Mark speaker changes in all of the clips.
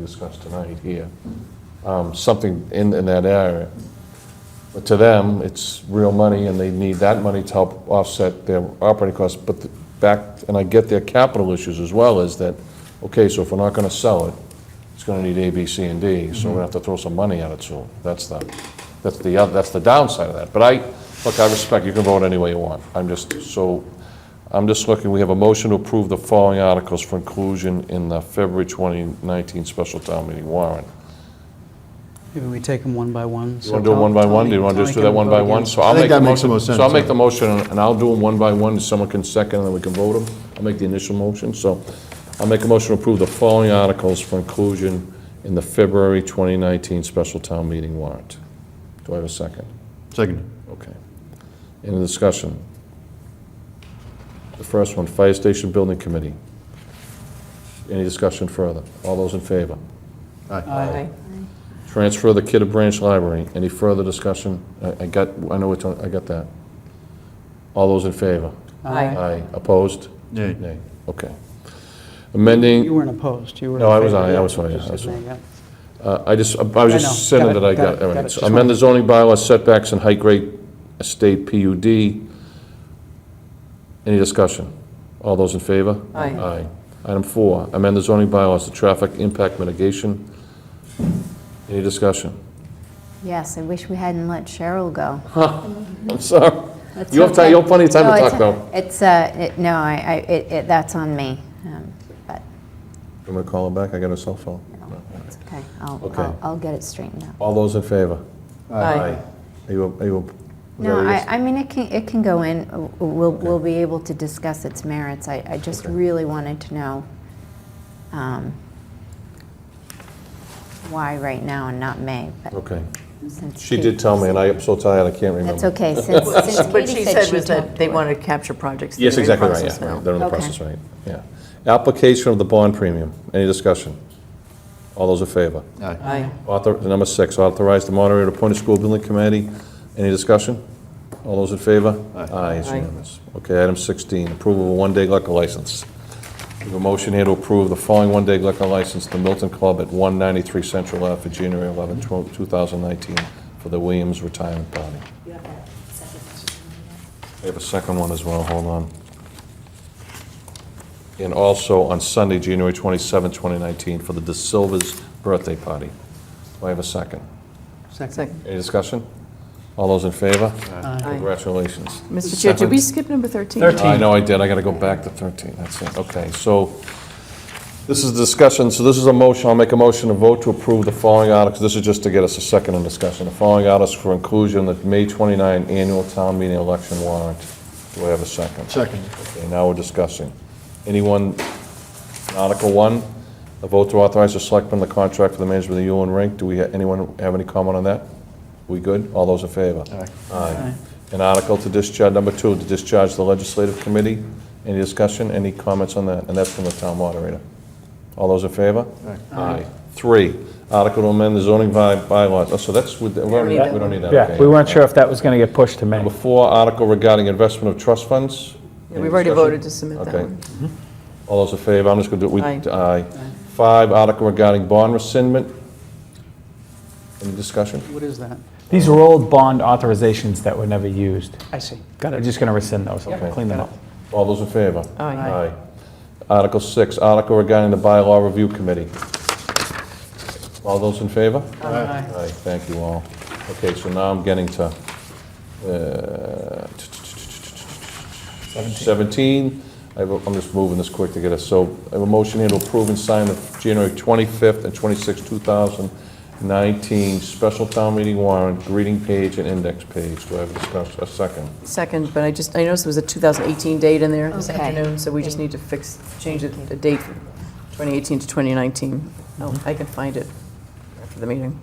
Speaker 1: discuss tonight here, um, something in, in that area. But to them, it's real money, and they need that money to help offset their operating costs, but the back, and I get their capital issues as well, is that, okay, so if we're not gonna sell it, it's gonna need A, B, C, and D, so we're gonna have to throw some money at it soon. That's the, that's the, oth- that's the downside of that. But I, look, I respect, you can vote any way you want. I'm just, so, I'm just looking, we have a motion to approve the following articles for inclusion in the February 2019 special town meeting warrant.
Speaker 2: Maybe we take them one by one.
Speaker 1: You want to do it one by one? Do you want to just do that one by one? So I'll
Speaker 3: I think
Speaker 1: make the
Speaker 3: that makes the
Speaker 1: motion.
Speaker 3: most
Speaker 1: So I'll
Speaker 3: sense,
Speaker 1: make
Speaker 3: yeah.
Speaker 1: the motion, and I'll do them one by one, and someone can second, and then we can vote them. I'll make the initial motion, so I'll make a motion to approve the following articles for inclusion in the February 2019 special town meeting warrant. Do I have a second?
Speaker 3: Second.
Speaker 1: Okay. Any discussion? The first one, Fire Station Building Committee. Any discussion further? All those in favor?
Speaker 4: Uh,
Speaker 2: Aye.
Speaker 1: Transfer the Kidder Branch Library. Any further discussion? I I got, I know which one, I got that. All those in favor?
Speaker 2: Aye.
Speaker 1: Aye. Opposed?
Speaker 3: Yay.
Speaker 1: Nay. Okay.
Speaker 2: You
Speaker 1: Amending,
Speaker 2: weren't opposed, you were. in
Speaker 1: No, I was
Speaker 2: favor,
Speaker 1: aye, I
Speaker 2: yeah,
Speaker 1: was aye,
Speaker 2: just
Speaker 1: I was
Speaker 2: saying, yeah.
Speaker 1: uh, I just, I was
Speaker 2: I
Speaker 1: just
Speaker 2: know. Got
Speaker 1: sending
Speaker 2: it,
Speaker 1: that I
Speaker 2: got it,
Speaker 1: got. all
Speaker 2: got it.
Speaker 1: right. So
Speaker 2: Just
Speaker 1: Amend the zoning bylaw setbacks and height grade estate PUD. Any discussion? All those in favor?
Speaker 4: Aye.
Speaker 1: Aye. Item four, amend the zoning bylaws to traffic impact mitigation. Any discussion?
Speaker 5: Yes, I wish we hadn't let Cheryl go.
Speaker 1: I'm sorry.
Speaker 5: That's
Speaker 1: You have ti-
Speaker 5: okay.
Speaker 1: you have plenty of time to
Speaker 5: No,
Speaker 1: talk,
Speaker 5: it's-
Speaker 1: though.
Speaker 5: It's, uh, it- no, I, I, it, it- that's on me, um, but,
Speaker 1: I'm going to call him back, I got a cell phone.
Speaker 5: you know, it's okay. I'll,
Speaker 1: Okay.
Speaker 5: I'll, I'll get it straightened out.
Speaker 1: All those in favor?
Speaker 4: Aye.
Speaker 1: Are you, are you?
Speaker 5: No, I, I mean, it can, it can go in, Uh, we'll, we'll be able to discuss its merits. I, I just
Speaker 1: Okay.
Speaker 5: really wanted to know, um, why right now and not May, but
Speaker 1: Okay.
Speaker 5: since.
Speaker 1: She
Speaker 5: Kate-
Speaker 1: did tell me, and I am so tired, I can't remember.
Speaker 5: That's okay, since, since
Speaker 4: What she
Speaker 5: Katie
Speaker 4: said was
Speaker 5: talked
Speaker 4: that they
Speaker 5: to it.
Speaker 4: wanted to capture projects. that
Speaker 1: Yes,
Speaker 4: are in
Speaker 1: exactly right,
Speaker 4: process
Speaker 1: yeah,
Speaker 4: now.
Speaker 1: right, they're in the
Speaker 5: Okay.
Speaker 1: process, right, yeah. Application of the bond premium, any discussion? All those in favor?
Speaker 3: Aye.
Speaker 4: Aye.
Speaker 1: Author, number six, authorize the moderator to appoint a school building committee, any discussion? All those in favor?
Speaker 3: Aye.
Speaker 1: Aye, it's
Speaker 4: Aye.
Speaker 1: unanimous. Okay, item 16, approval of a one-day liquor license. We have a motion here to approve the following one-day liquor license, the Milton Club at 193 Central Ave for January 11, 12 2019, for the Williams Retirement Party. We have a second one as well, hold on. And also on Sunday, January 27, 2019, for the De Silva's Birthday Party. Do I have a second?
Speaker 4: Second.
Speaker 1: Any discussion? All those in favor?
Speaker 4: Aye.
Speaker 1: Congratulations.
Speaker 4: Mr. Chair, did we skip number 13?
Speaker 1: I know I did, I gotta go back to 13, that's it, okay, so, this is discussion, so this is a motion, I'll make a motion to vote to approve the following articles, this is just to get us a second in discussion, the following articles for inclusion in the May 29 annual town meeting election warrant. Do I have a second?
Speaker 3: Second.
Speaker 1: Okay, now we're discussing. Anyone, Article 1, a vote to authorize the selectmen the contract for the management of the Yulin Rink, do we, ha- anyone have any comment on that? We good? All those in favor? Aye. An article to discharge, number two, to discharge the legislative committee. Any discussion, any comments on that? And that's from the town moderator. All those in favor? Aye. Three, article to amend the zoning by- bylaws, Oh, so that's, with- we don't need that, okay.
Speaker 6: Yeah, we weren't sure if that was going to get pushed to May.
Speaker 1: Number four, article regarding investment of trust funds.
Speaker 4: Yeah, We've already
Speaker 1: Any discussion?
Speaker 4: voted to submit that
Speaker 1: Okay.
Speaker 4: one.
Speaker 1: All those in favor, I'm just going to do it, we,
Speaker 4: Aye.
Speaker 1: aye. Five, article regarding bond rescindment. Any discussion?
Speaker 2: What is that?
Speaker 6: These were old bond authorizations that were never used.
Speaker 2: I see.
Speaker 6: Got it. We're just going to rescind those,
Speaker 1: Okay.
Speaker 6: clean them
Speaker 2: got
Speaker 6: up.
Speaker 1: All those in favor?
Speaker 4: Aye.
Speaker 1: Aye. Article six, article regarding the bylaw review committee. All those in favor?
Speaker 2: Aye.
Speaker 1: Aye, thank you all. Okay, so now I'm getting to uh, 17. I have a- I'm just moving this quick to get us, so I have a motion here to approve and sign the January 25th and 26th, 2019 special town meeting warrant, greeting page and index page. Do I have a discussion, a second?
Speaker 4: Second, but I just, I noticed there was a 2018 date in there this
Speaker 5: Okay.
Speaker 4: afternoon, so we just need to fix, change the the date from 2018 to 2019. No, I can find it after the meeting.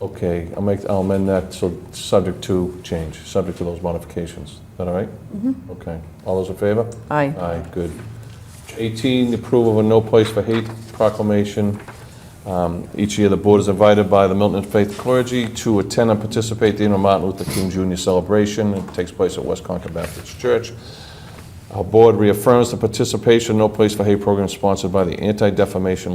Speaker 1: Okay, I'll make, I'll amend that, so subject to change, subject to those modifications. Is that all right? Mm-hmm. Okay. All those in favor?
Speaker 4: Aye.
Speaker 1: Aye, good. 18, approval of a No Place for Hate proclamation. Um, Each year, the board is invited by the Milton Faith clergy to attend and participate in the Martin Luther King Jr. celebration. It takes place at West Concord Baptist Church. Our board reaffirms the participation in No Place for Hate program sponsored by the Anti-Defamation